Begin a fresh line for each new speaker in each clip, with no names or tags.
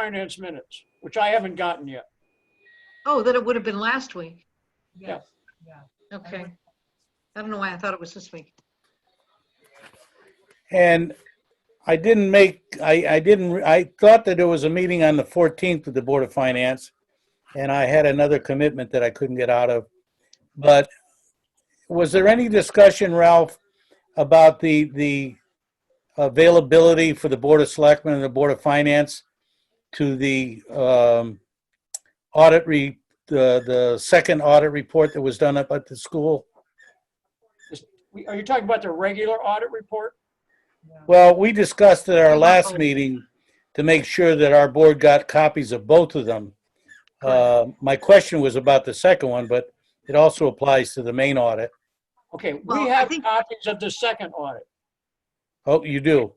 finance minutes, which I haven't gotten yet.
Oh, then it would have been last week.
Yeah.
Yes, yeah.
Okay. I don't know why I thought it was this week.
And I didn't make, I, I didn't, I thought that there was a meeting on the 14th with the Board of Finance, and I had another commitment that I couldn't get out of. But was there any discussion, Ralph, about the, the availability for the Board of Selectmen and the Board of Finance to the um, audit re, the, the second audit report that was done up at the school?
We- Are you talking about the regular audit report?
yeah.
Well, we discussed at our last
Wow.
meeting to make sure that our board got copies of both of them. Uh, My question was about the second one, but it also applies to the main audit.
Okay, we
Well, I
have
think-
copies of the second audit.
Oh, you do?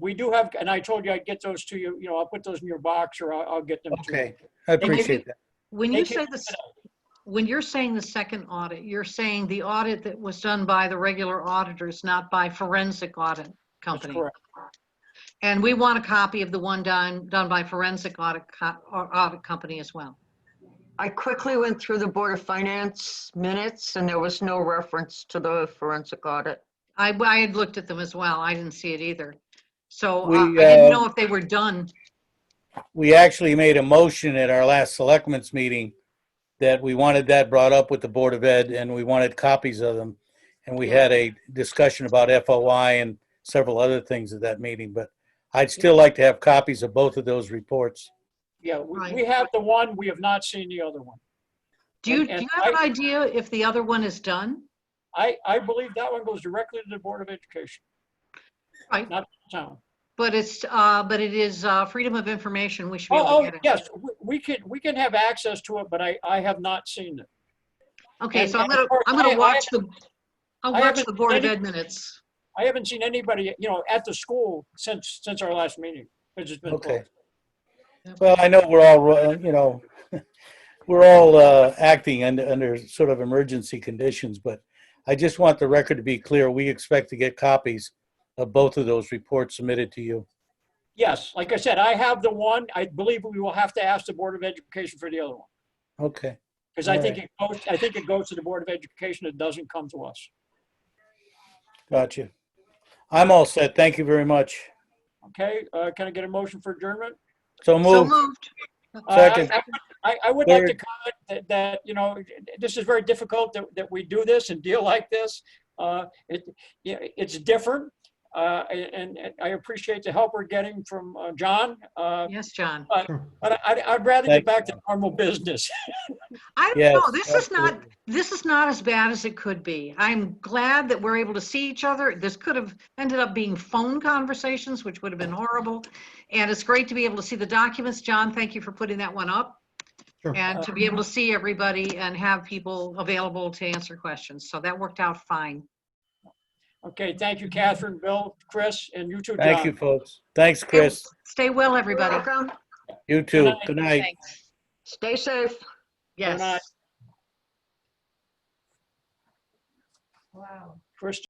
We do have, and I told you I'd get those to you, you know, I'll put those in your box or I'll, I'll get them to you.
Okay, I appreciate that.
When
They
you
can-
say this, when you're saying the second audit, you're saying the audit that was done by the regular auditors, not by forensic audit
That's
company.
correct.
And we want a copy of the one done, done by forensic audit, co- or audit company as well.
I quickly went through the Board of Finance minutes and there was no reference to the forensic audit.
I, I had looked at them as well. I didn't see it either. So uh, I
We,
didn't
uh,
know if they were done.
We actually made a motion at our last selectmen's meeting that we wanted that brought up with the Board of Ed and we wanted copies of them. And we had a discussion about FOI and several other things at that meeting, but I'd still like to have copies of both of those reports.
Yeah, we,
Right.
we have the one, we have not seen the other one.
Do you,
and-
do
and
you have an
I-
idea if the other one is done?
I, I believe that one goes directly to the Board of Education,
Right,
town.
but it's, uh, but it is, uh, freedom of information. We should be able to
Oh,
get
oh,
it.
yes, we- we can, we can have access to it, but I, I have not seen it.
Okay,
And-
so I'm
and
gonna,
of course,
I'm
I-
gonna
I
watch the,
I
I'll watch
haven't
the Board of
seen
Ed minutes.
I haven't seen anybody, you know, at the school since, since our last meeting. It's just been
Okay.
closed.
Well, I know we're all, uh, you know, we're all uh, acting under, under sort of emergency conditions, but I just want the record to be clear. We expect to get copies of both of those reports submitted to you.
Yes, like I said, I have the one, I believe we will have to ask the Board of Education for the other one.
Okay,
Because I think it goes, I think it goes to the Board of Education, it doesn't come to us.
gotcha. I'm all set. Thank you very much.
Okay, uh, can I get a motion for adjournment?
So
So
moved.
moved.
Uh, I-
Second.
I, I would like to
Third.
comment that, that, you know, this is very difficult that, that we do this and deal like this. Uh, It, yeah, it's different, uh, and, and I appreciate the help we're getting from uh, John. uh,
Yes, John.
But I, I'd rather get
Thank
back to normal business.
I don't
Yes,
know, this is not,
absolutely.
this is not as bad as it could be. I'm glad that we're able to see each other. This could have ended up being phone conversations, which would have been horrible. And it's great to be able to see the documents. John, thank you for putting that one up. And to be able to see everybody and have people available to answer questions. So that worked out fine.
Okay, thank you, Catherine, Bill, Chris, and you too, John.
Thank you, folks. Thanks, Chris.
Stay well, everybody.
Welcome.
You too. Good night.
Stay safe.
Good night.
Yes.
Wow.
Chris